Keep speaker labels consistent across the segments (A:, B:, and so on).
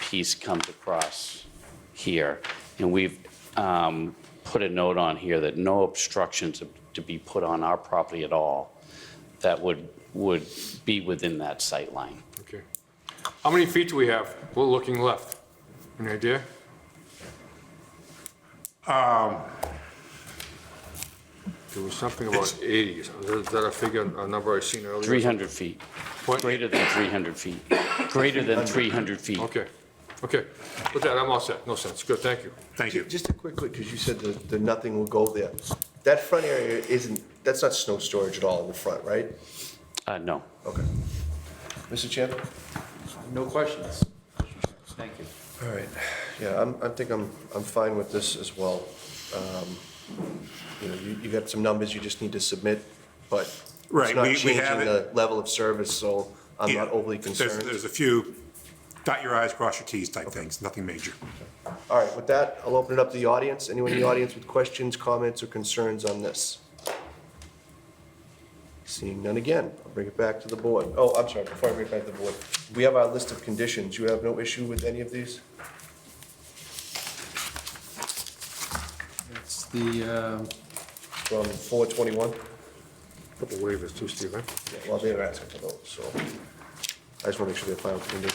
A: piece comes across here. And we've um, put a note on here that no obstructions to be put on our property at all that would, would be within that sight line.
B: Okay. How many feet do we have? We're looking left. Any idea? Um, There was something about 80. Is that- is that a figure, a number I seen earlier?
A: 300 feet,
B: What?
A: greater than 300 feet, greater than 300 feet.
B: Okay, okay. With that, I'm all set. No sense. Good, thank you.
C: Thank you.
D: Just a quickly, because you said that, that nothing will go there. That front area isn't, that's not snow storage at all in the front, right?
A: Uh, No.
D: Okay. Mr. Chairman?
E: No questions. Thank you.
D: All right. Yeah, I'm, I think I'm, I'm fine with this as well. Um, You know, you, you got some numbers you just need to submit, but
C: Right,
D: it's not
C: we- we have
D: changing
C: it.
D: the level of service, so I'm
C: Yeah.
D: not overly
C: There's-
D: concerned.
C: There's a few dot your i's, cross your t's type things, nothing major.
D: All right, with that, I'll open it up to the audience. Anyone in the audience with questions, comments, or concerns on this? Seeing none again, I'll bring it back to the board. Oh, I'm sorry, before I bring it back to the board, we have our list of conditions. You have no issue with any of these?
E: It's the,
D: From 421?
B: Couple waivers too, Steve, eh?
D: Yeah, Well, they were asking for those, so I just want to make sure they're final conditions.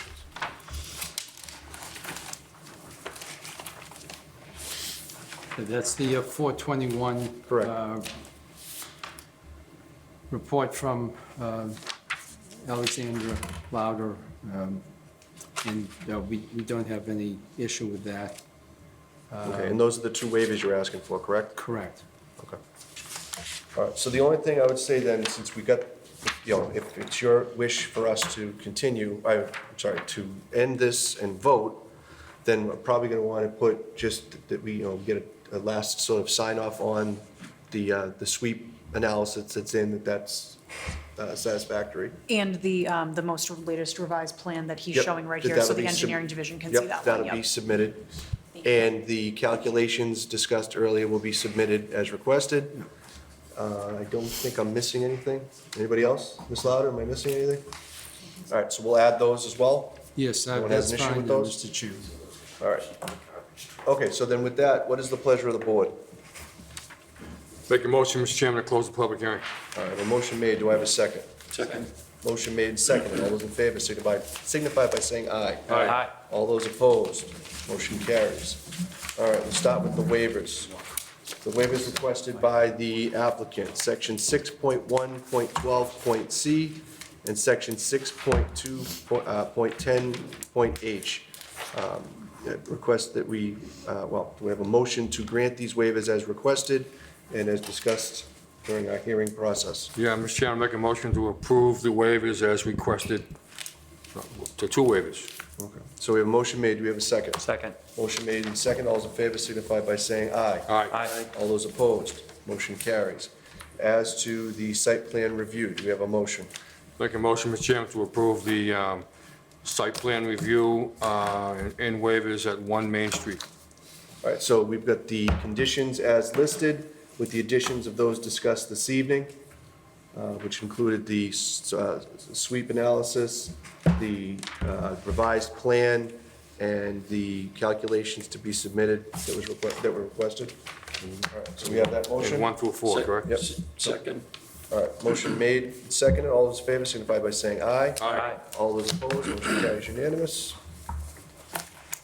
E: uh, that's the uh, 421.
D: Correct.
E: uh, Report from um, Alexandra Louder, um, and uh, we we don't have any issue with that.
D: Okay, and those are the two waivers you're asking for, correct?
E: Correct.
D: Okay. All right, so the only thing I would say then, since we got, you know, if it's your wish for us to continue, I, I'm sorry, to end this and vote, then we're probably gonna wanna put just that we, you know, get a, a last sort of sign off on the, uh, the sweep analysis that's in, that that's uh, satisfactory.
F: And the, um, the most latest revised plan that he's
D: Yep,
F: showing right
D: that
F: here, so
D: that'll be
F: the
D: sub-
F: engineering division can
D: yep,
F: see that one,
D: That'll be
F: yep.
D: submitted. And the calculations discussed earlier will be submitted as requested. Uh, I don't think I'm missing anything. Anybody else? Ms. Louder, am I missing anything? All right, so we'll add those as well.
E: Yes, uh,
D: Anyone has an
E: that's
D: issue
E: fine,
D: with
E: uh,
D: those?
E: Mr. Chair.
D: All right. Okay, so then with that, what is the pleasure of the board?
B: Make a motion, Mr. Chairman, to close the public hearing.
D: All right, a motion made, do I have a second? Second. Motion made, second, all those in favor signify, signify by saying aye.
B: Aye.
D: All those opposed, motion carries. All right, we'll start with the waivers. The waivers requested by the applicant, section 6.1.12.c and section uh, 6.2.10.h. Uh, Request that we, uh, well, we have a motion to grant these waivers as requested and as discussed during our hearing process.
B: Yeah, Mr. Chairman, make a motion to approve the waivers as requested. No, The Uh, two waivers.
D: So we have a motion made, Do we have a second.
G: Second.
D: Motion made and second, all those in favor signify by saying aye.
B: Aye.
G: Aye.
D: All those opposed, motion carries. As to the site plan review, do we have a motion?
B: Make a motion, Mr. Chairman, to approve the um, site plan review uh, and waivers at 1 Main Street.
D: All right, so we've got the conditions as listed with the additions of those discussed this evening, uh, which included the s- uh, sweep analysis, the uh, revised plan, and the calculations to be submitted that was, requ- that were requested. All right, so we have that motion?
B: And 1 through 4, correct?
D: Yep.
G: Second.
D: All right, motion made, and seconded, all those in favor signify by saying aye.
B: Aye.
D: All those opposed, motion carries unanimous.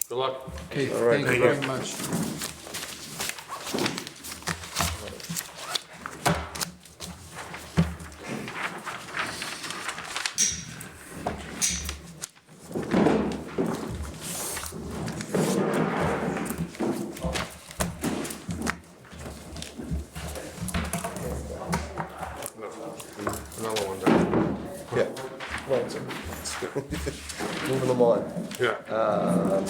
B: Good luck.
E: Okay,
D: All right,
E: thank you
D: thank
E: very much.
B: Another one down.
D: Yeah. Well, it's- Moving them on.
B: Yeah.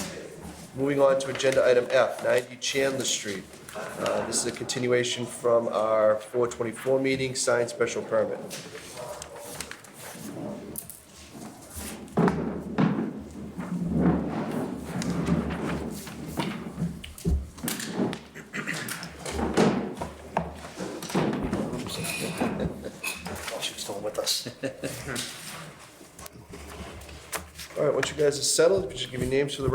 D: Moving on to agenda item F, 90 Chandler Street. Uh, This is a continuation from our 424 meeting, signed special permit. She's still with us. All right, once you guys are settled, just give your names for the